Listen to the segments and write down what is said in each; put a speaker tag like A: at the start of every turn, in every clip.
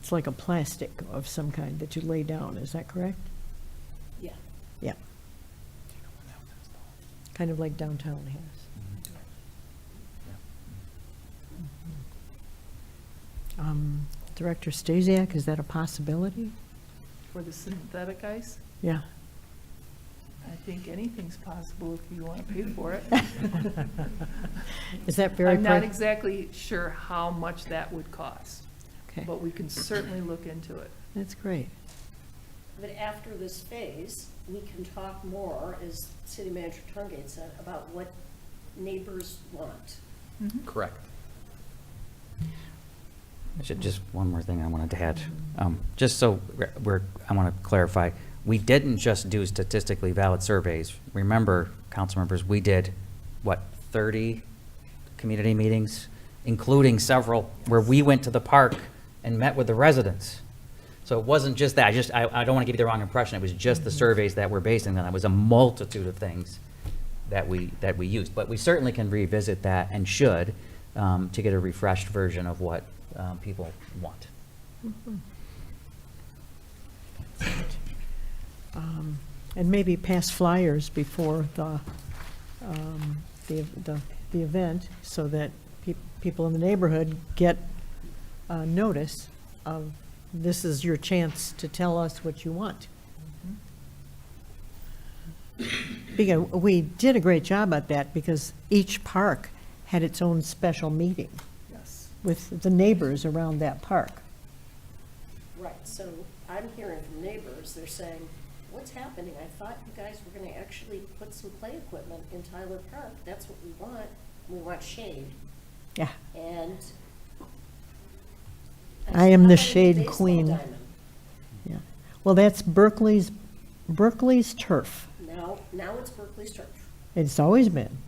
A: It's like a plastic of some kind that you lay down, is that correct?
B: Yeah.
A: Yeah. Kind of like downtown has. Um, Director Stasiak, is that a possibility?
B: For the synthetic ice,
A: Yeah.
B: I think anything's possible if you want to pay for it.
A: Is that very?
B: I'm not
A: pri-
B: exactly sure how much that would cost,
A: Okay,
B: but we can certainly look into it.
A: that's great.
C: But after this phase, we can talk more, as City Manager Tungate said, about what neighbors want.
D: Correct. Ju- Just one more thing I wanted to add. Um, Just so we're- we're, I want to clarify, we didn't just do statistically valid surveys. Remember, council members, we did, what, 30 community meetings, including several where we went to the park and met with the residents. So it wasn't just that, I just, I I don't want to give you the wrong impression, it was just the surveys that were based on that. It was a multitude of things that we, that we used. But we certainly can revisit that and should um, to get a refreshed version of what um, people want.
A: Um, And maybe pass flyers before the, um, the, the, the event, so that peop- people in the neighborhood get uh, notice of, this is your chance to tell us what you want. Because we did a great job at that, because each park had its own special meeting
B: Yes.
A: with the neighbors around that park.
C: Right, so I'm hearing from neighbors, they're saying, what's happening? I thought you guys were gonna actually put some play equipment in Tyler Park, that's what we want, we want shade,
A: Yeah,
C: and.
A: I am the
C: How about a
A: shade
C: baseball
A: queen.
C: diamond?
A: yeah. Well, that's Berkeley's, Berkeley's turf.
C: Now, now it's Berkeley's turf.
A: It's always been.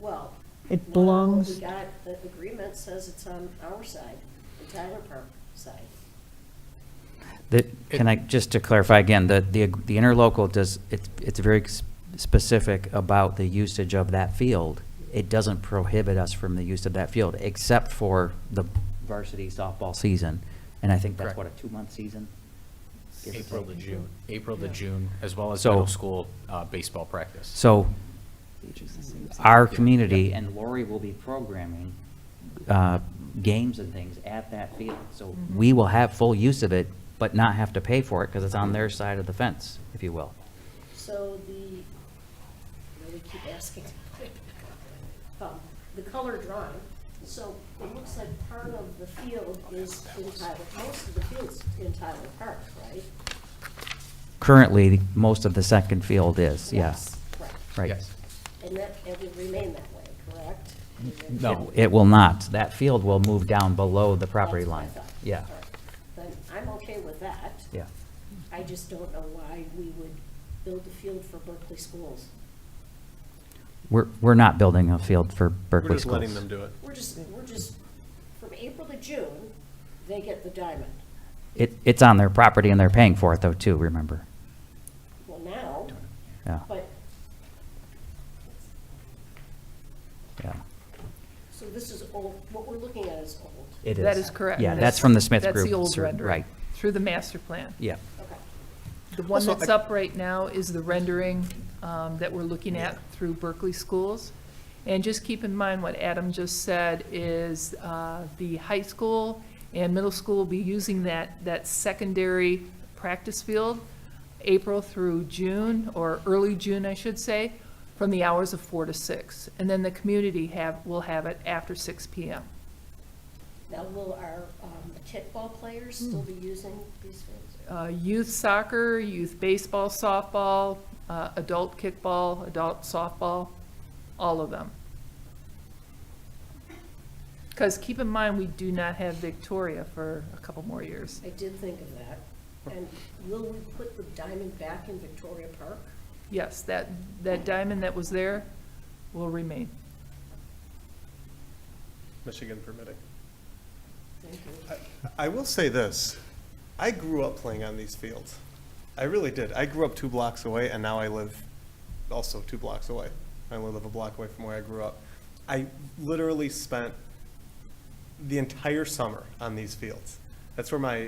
C: Well.
A: It
C: now what
A: belongs,
C: We got, the agreement says it's on our side, the Tyler Park side.
D: That, can I, just to clarify again, the, the the interlocal does, it's, it's very s- specific about the usage of that field. It doesn't prohibit us from the use of that field, except for the varsity softball season. And I think that's what, a two-month season? Give or
E: April to
D: take.
E: June, April to June, as well as
D: So-
E: middle school uh, baseball practice.
D: So our community, and Lori will be programming uh, games and things at that field. So
B: Mm-hmm.
D: we will have full use of it, but not have to pay for it because it's on their side of the fence, if you will.
C: So the, you know, we keep asking, um, the color drawing, so it looks like part of the field is in Tyler, most of the field's in Tyler Park, right?
D: Currently, most of the second field is, yes.
C: Right,
D: Right.
E: Yes.
C: and that, it will remain that way, correct?
E: No.
D: It will not. That field will move down below the property
C: That's what I
D: line.
C: thought.
D: Yeah,
C: All right. Then I'm okay with that.
D: yeah.
C: I just don't know why we would build a field for Berkeley schools.
D: We're, we're not building a field for
F: We're
D: Berkeley
F: just letting
D: schools.
F: them do it.
C: We're just, we're just, from April to June, they get the diamond.
D: It, it's on their property and they're paying for it though, too, remember?
C: Well, now,
D: Yeah,
C: but,
D: yeah.
C: so this is old, what we're looking at is old.
D: It is.
B: That is correct.
D: Yeah, that's from the Smith Group.
B: That's the old
D: sir,
B: rendering.
D: Right,
B: Through the master plan.
D: yeah.
C: Okay.
B: The one
F: Also,
B: that's
F: I-
B: up right now is the rendering um, that we're looking at through Berkeley Schools. And just keep in mind what Adam just said is uh, the high school and middle school will be using that, that secondary practice field April through June, or early June, I should say, from the hours of four to six. And then the community have, will have it after six PM.
C: Now, will our um, kickball players still be using these fields?
B: uh, youth soccer, youth baseball, softball, uh, adult kickball, adult softball, all of them. Because keep in mind, we do not have Victoria for a couple more years.
C: I did think of that. And will we put the diamond back in Victoria Park?
B: Yes, that, that diamond that was there will remain.
F: Michigan permitting.
C: Thank you.
F: I- I will say this, I grew up playing on these fields. I really did. I grew up two blocks away, and now I live also two blocks away. I only live a block away from where I grew up. I literally spent the entire summer on these fields. That's where my